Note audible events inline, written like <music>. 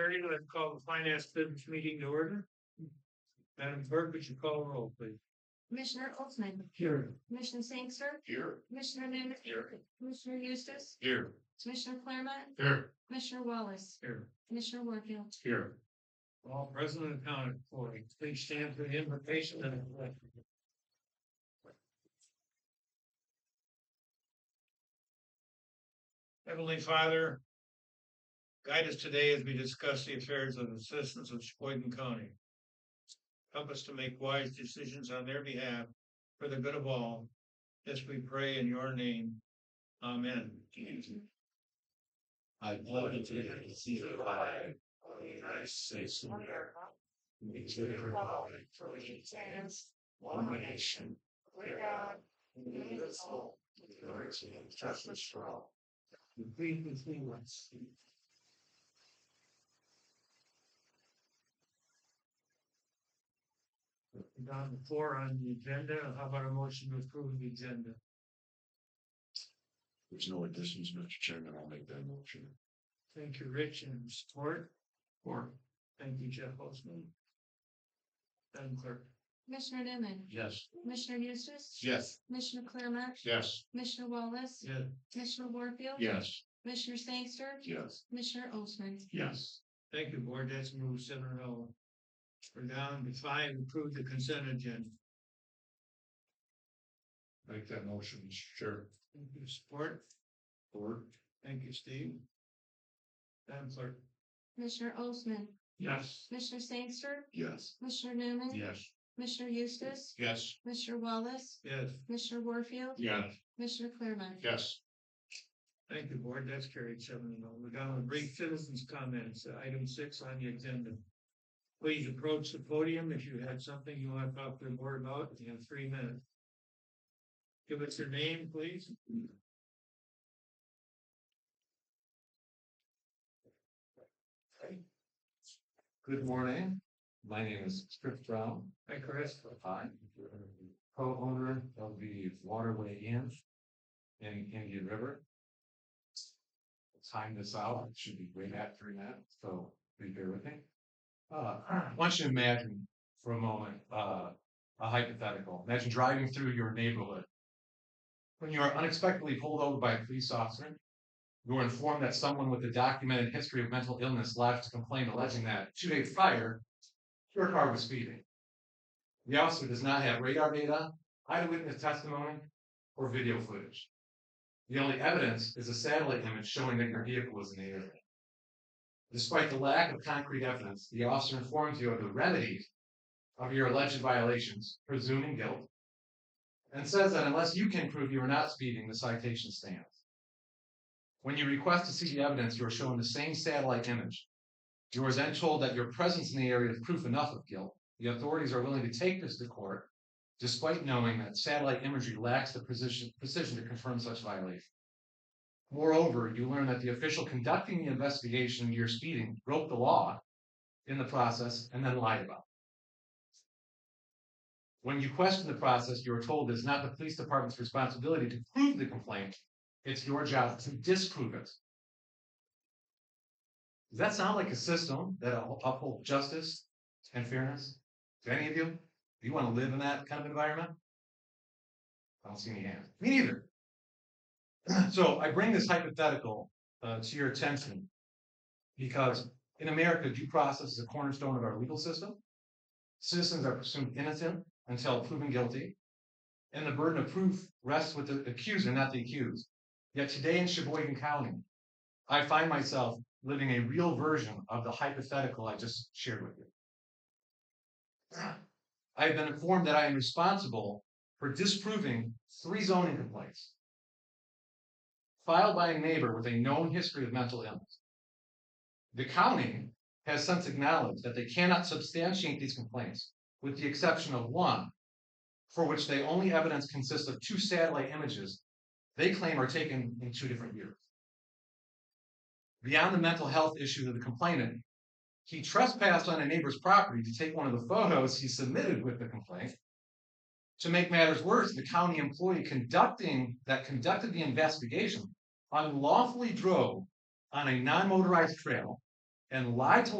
Secretary, let's call the finance business meeting to order. Madam Clerk, would you call roll, please? Commissioner Olson, Here. Commissioner Sangster, Here. Commissioner Newman, Here. Commissioner Eustace, Here. Commissioner Claremont, Here. Commissioner Wallace, Here. Commissioner Warfield. Here. All present and accounted for. Please stand for the invocation and. the pledge. Heavenly Father, guide us today as we discuss the affairs of the citizens of Sheboygan County. Help us to make wise decisions on their behalf for the good of all. This we pray in your name. Amen. I pledge allegiance to the flag of the United States of America, and to the republic for which it stands, one nation, under God, indivisible, with liberty and justice for all. Please continue us. Down the floor on the agenda, how about a motion to approve the agenda? There's no additions, Mr. Chairman, I'll make that motion. Thank you, Rich, and support. Or. Thank you, Jeff Holzman. Madam Clerk. Commissioner Newman, Yes. Commissioner Eustace. Yes. Commissioner Claremont, Yes. Commissioner Wallace, Yeah. Commissioner Warfield. Yes. Commissioner Sangster, Yes. Commissioner Olson. Yes. Thank you, Board. That's move seven and oh. We're down to five, approve the consent agenda. Make that motion, Mr. Chair. Thank you, support. Or? Thank you, Steve. Madam Clerk. Commissioner Olson, Yes. Commissioner Sangster, Yes. Commissioner Newman. Yes. Commissioner Eustace, Yes. Commissioner Wallace, Yes. Commissioner Warfield, Yes. Commissioner Claremont. Yes. Thank you, Board. That's carried seven and oh. We're down to brief citizens' comments, uh, item six on the agenda. Please approach the podium if you have something you want to talk to the board about. You have three minutes. Give us your name, please. Good morning. My name is Chris Brown. Hi, Chris. I'm the co-owner of the Waterway Inn in Indian River. Time this out, it should be way after that, so be here with me. Uh, <clears throat> I want you to imagine for a moment, uh, a hypothetical. Imagine driving through your neighborhood. When you are unexpectedly pulled over by a police officer, you are informed that someone with a documented history of mental illness lodged a complaint alleging that two days prior, your car was speeding. The officer does not have radar data, eyewitness testimony, or video footage. The only evidence is a satellite image showing that your vehicle was in the area. Despite the lack of concrete evidence, the officer informs you of the remedies of your alleged violations, presuming guilt, and says that unless you can prove you were not speeding, the citation stands. When you request to see the evidence, you are shown the same satellite image. You are then told that your presence in the area is proof enough of guilt. The authorities are willing to take this to court, despite knowing that satellite imagery lacks the precision, precision to confirm such violation. Moreover, you learn that the official conducting the investigation into your speeding broke the law in the process and then lied about it. When you question the process, you are told it is not the police department's responsibility to prove the complaint, it's your job to disprove it. Does that sound like a system that up- upholds justice and fairness? Do any of you? Do you want to live in that kind of environment? I don't see any hands. Me neither. <clears throat> so I bring this hypothetical uh, to your attention because in America, due process is a cornerstone of our legal system. Citizens are presumed innocent until proven guilty, and the burden of proof rests with the accuser, not the accused. Yet today in Sheboygan County, I find myself living a real version of the hypothetical I just shared with you. I have been informed that I am responsible for disproving three zoning complaints filed by a neighbor with a known history of mental illness. The county has since acknowledged that they cannot substantiate these complaints, with the exception of one, for which the only evidence consists of two satellite images they claim are taken in two different years beyond the mental health issues of the complainant. He trespassed on a neighbor's property to take one of the photos he submitted with the complaint. To make matters worse, the county employee conducting that conducted the investigation unlawfully drove on a non-motorized trail and lied to